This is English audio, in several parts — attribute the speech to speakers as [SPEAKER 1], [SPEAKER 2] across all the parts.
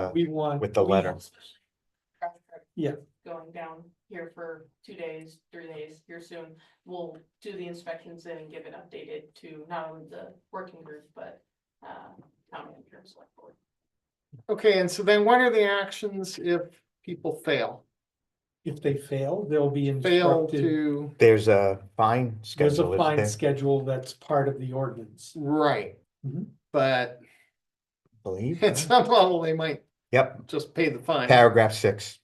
[SPEAKER 1] the,
[SPEAKER 2] we want.
[SPEAKER 1] with the
[SPEAKER 2] we
[SPEAKER 1] letter.
[SPEAKER 2] want-
[SPEAKER 3] traffic trip
[SPEAKER 2] Yeah.
[SPEAKER 3] Going down here for two days, three days, here soon, we'll do the inspections then and give it updated to not only the working group, but uh, town manager and select board.
[SPEAKER 4] Okay, and so then what are the actions if people fail?
[SPEAKER 2] If they fail, they'll be
[SPEAKER 4] Fail
[SPEAKER 2] instructed,
[SPEAKER 4] to,
[SPEAKER 1] there's a fine
[SPEAKER 2] there's
[SPEAKER 1] schedule,
[SPEAKER 2] a
[SPEAKER 1] isn't
[SPEAKER 2] fine
[SPEAKER 1] there?
[SPEAKER 2] schedule that's part of the ordinance.
[SPEAKER 4] right,
[SPEAKER 5] Mm-hmm.
[SPEAKER 2] Mhm.
[SPEAKER 4] but
[SPEAKER 1] Believe,
[SPEAKER 4] at some level, they might
[SPEAKER 1] yep,
[SPEAKER 4] just pay the fine.
[SPEAKER 1] paragraph six.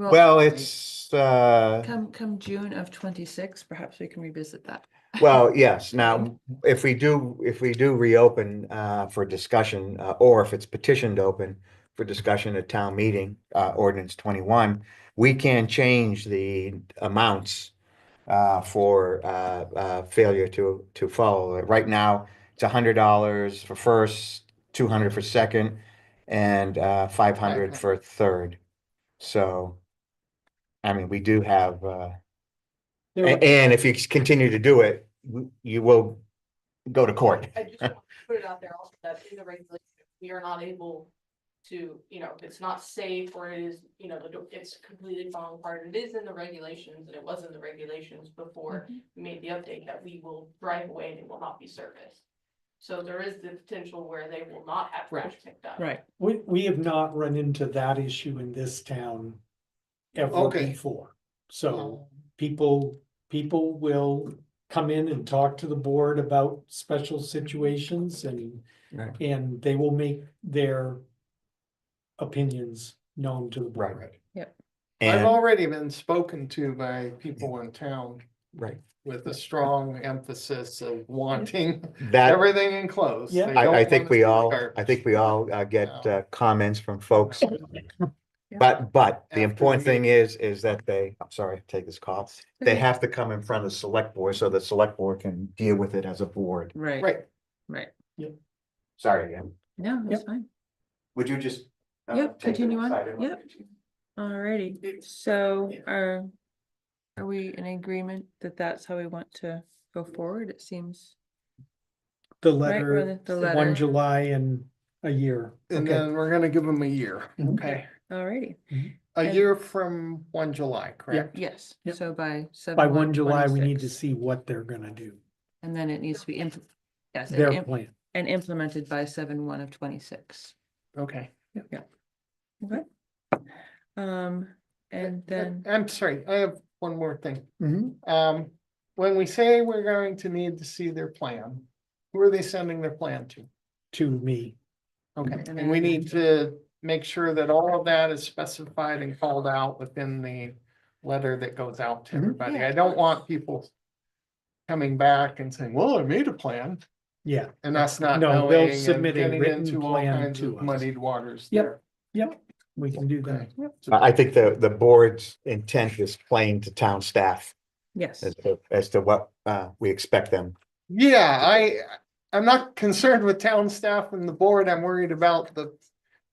[SPEAKER 1] Well, it's, uh,
[SPEAKER 5] Come, come June of twenty-six, perhaps we can revisit that.
[SPEAKER 1] Well, yes, now, if we do, if we do reopen uh for discussion, uh or if it's petitioned open for discussion at town meeting, uh ordinance twenty-one, we can change the amounts uh for uh uh failure to to follow. Right now, it's a hundred dollars for first, two hundred for second, and uh five hundred
[SPEAKER 4] Okay.
[SPEAKER 1] for third. So, I mean, we do have uh
[SPEAKER 2] There
[SPEAKER 1] a- And if you c- continue to do it, w- you will go to court.
[SPEAKER 3] I just want to put it out there also that in the regulation, we are not able to, you know, if it's not safe or it is, you know, the do- it's completely falling apart. It is in the regulations and it was in the regulations before we made the update that we will drive away and it will not be serviced. So there is the potential where they will not have trash picked up.
[SPEAKER 5] Right,
[SPEAKER 2] We, we have not run into that issue in this town ever
[SPEAKER 4] Okay. Oh.
[SPEAKER 2] before. So people, people will come in and talk to the board about special situations and,
[SPEAKER 1] Right.
[SPEAKER 2] and they will make their opinions known to the board.
[SPEAKER 1] Right.
[SPEAKER 5] Yep.
[SPEAKER 4] I've
[SPEAKER 1] And,
[SPEAKER 4] already been spoken to by people in town
[SPEAKER 1] right,
[SPEAKER 4] with a strong emphasis of wanting
[SPEAKER 1] that,
[SPEAKER 4] everything enclosed.
[SPEAKER 2] Yeah.
[SPEAKER 4] They
[SPEAKER 1] I,
[SPEAKER 4] don't
[SPEAKER 1] I
[SPEAKER 4] want
[SPEAKER 1] think
[SPEAKER 4] us
[SPEAKER 1] we
[SPEAKER 4] to
[SPEAKER 1] all,
[SPEAKER 4] start
[SPEAKER 1] I think we all uh, get
[SPEAKER 4] No.
[SPEAKER 1] uh, comments from folks.
[SPEAKER 5] Yeah.
[SPEAKER 1] But, but
[SPEAKER 4] After
[SPEAKER 1] the
[SPEAKER 4] the
[SPEAKER 1] important thing is, is that they, I'm sorry, take this call. They
[SPEAKER 5] Okay.
[SPEAKER 1] have to come in front of the select board so the select board can deal with it as a board.
[SPEAKER 5] right,
[SPEAKER 4] Right,
[SPEAKER 5] right.
[SPEAKER 1] Sorry, again.
[SPEAKER 5] No, that's fine.
[SPEAKER 1] Would you just? uh,
[SPEAKER 5] Yep,
[SPEAKER 1] take it
[SPEAKER 5] continue on.
[SPEAKER 1] aside and let
[SPEAKER 5] Yep.
[SPEAKER 1] me-
[SPEAKER 5] Alrighty, so are, are we in agreement that that's how we want to go forward? It seems.
[SPEAKER 2] The
[SPEAKER 5] Right, or
[SPEAKER 2] letter,
[SPEAKER 5] the- the letter.
[SPEAKER 2] one July and a year.
[SPEAKER 4] and
[SPEAKER 2] Okay.
[SPEAKER 4] then we're gonna give them a year.
[SPEAKER 5] Mm-hmm. Okay. Alrighty,
[SPEAKER 4] A
[SPEAKER 5] And-
[SPEAKER 4] year from one July, correct?
[SPEAKER 5] yes,
[SPEAKER 2] Yep.
[SPEAKER 5] so by seven.
[SPEAKER 2] By one July, we need to
[SPEAKER 5] 26,
[SPEAKER 2] see what they're gonna do,
[SPEAKER 5] And then it needs to be, impl- yes, and
[SPEAKER 2] their
[SPEAKER 5] im-
[SPEAKER 2] plan.
[SPEAKER 5] and implemented by seven one of twenty-six.
[SPEAKER 4] Okay.
[SPEAKER 5] Okay. Um, and then,
[SPEAKER 4] I'm sorry, I have one more thing.
[SPEAKER 2] Mhm.
[SPEAKER 4] Um, when we say we're going to need to see their plan, who are they sending their plan to?
[SPEAKER 2] to me.
[SPEAKER 4] Okay,
[SPEAKER 5] And
[SPEAKER 4] and we
[SPEAKER 5] then-
[SPEAKER 4] need to make sure that all of that is specified and called out within the letter that goes out to
[SPEAKER 2] Mhm.
[SPEAKER 4] everybody.
[SPEAKER 5] Yeah,
[SPEAKER 4] I
[SPEAKER 5] of
[SPEAKER 4] don't
[SPEAKER 5] course.
[SPEAKER 4] want people coming back and saying, well, I made a plan
[SPEAKER 2] Yeah,
[SPEAKER 4] and us not
[SPEAKER 2] No, they'll
[SPEAKER 4] knowing and
[SPEAKER 2] submit a
[SPEAKER 4] getting
[SPEAKER 2] written
[SPEAKER 4] into all
[SPEAKER 2] plan
[SPEAKER 4] kinds
[SPEAKER 2] to
[SPEAKER 4] of
[SPEAKER 2] us.
[SPEAKER 4] muddied waters
[SPEAKER 2] Yep.
[SPEAKER 4] there.
[SPEAKER 2] we can do that.
[SPEAKER 4] Okay.
[SPEAKER 1] I, I think the, the board's intent is plain to town staff
[SPEAKER 5] yes,
[SPEAKER 1] as to, as to what uh, we expect them
[SPEAKER 4] Yeah, I, I'm not concerned with town staff and the board. I'm worried about the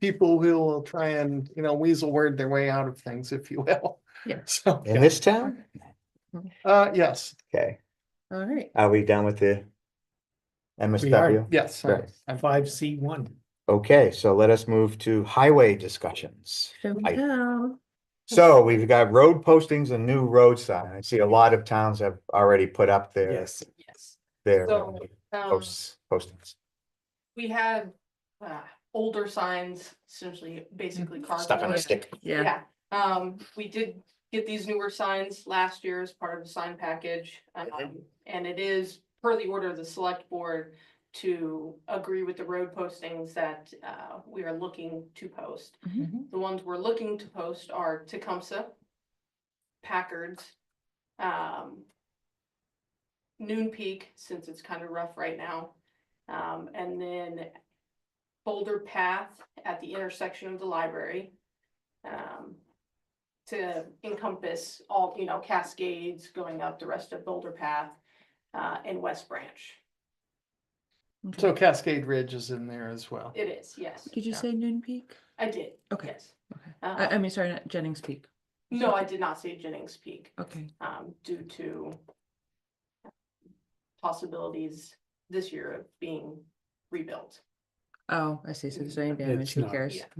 [SPEAKER 4] people who will try and, you know, weasel word their way out of things, if you will.
[SPEAKER 5] Yeah.
[SPEAKER 4] So,
[SPEAKER 1] in this town.
[SPEAKER 4] uh, yes,
[SPEAKER 1] Okay,
[SPEAKER 5] alright.
[SPEAKER 1] are we done with the
[SPEAKER 2] We are.
[SPEAKER 1] MSW?
[SPEAKER 4] yes. I-
[SPEAKER 1] Right.
[SPEAKER 4] I'm-
[SPEAKER 2] Five C one.
[SPEAKER 1] Okay, so let us move to highway discussions.
[SPEAKER 5] So we
[SPEAKER 1] I-
[SPEAKER 5] know.
[SPEAKER 1] So we've got road postings and new road signs. I see a lot of towns have already put up their,
[SPEAKER 2] Yes,
[SPEAKER 3] Yes.
[SPEAKER 1] their
[SPEAKER 3] So,
[SPEAKER 1] uh,
[SPEAKER 3] um,
[SPEAKER 1] posts, postings.
[SPEAKER 3] we have uh, older signs, essentially, basically
[SPEAKER 1] Stuff on
[SPEAKER 3] cardboard.
[SPEAKER 1] a stick.
[SPEAKER 5] Yeah,
[SPEAKER 3] Um, we did get these newer signs last year as part of the sign package. um, and it is per the order of the select board to agree with the road postings that, uh, we are looking to post.
[SPEAKER 5] Mhm.
[SPEAKER 3] The ones we're looking to post are Tecumseh, Packards, um, Noon Peak, since it's kind of rough right now. Um, and then Boulder Path at the intersection of the library. Um, to encompass all, you know, Cascades going up the rest of Boulder Path, uh, and West Branch.
[SPEAKER 5] Okay.
[SPEAKER 4] So Cascade Ridge is in there as well.
[SPEAKER 3] It is, yes,
[SPEAKER 5] Did you
[SPEAKER 4] Yeah.
[SPEAKER 5] say Noon Peak?
[SPEAKER 3] I did.
[SPEAKER 5] Okay.
[SPEAKER 3] yes.
[SPEAKER 5] Okay. I, I
[SPEAKER 3] Um,
[SPEAKER 5] mean, sorry, not Jennings Peak.
[SPEAKER 3] no, I did not say Jennings Peak.
[SPEAKER 5] Okay,
[SPEAKER 3] um, due to possibilities this year of being rebuilt.
[SPEAKER 5] oh, I see, so there's any
[SPEAKER 2] It's
[SPEAKER 5] damage, who
[SPEAKER 2] not-
[SPEAKER 5] cares?
[SPEAKER 3] Yeah.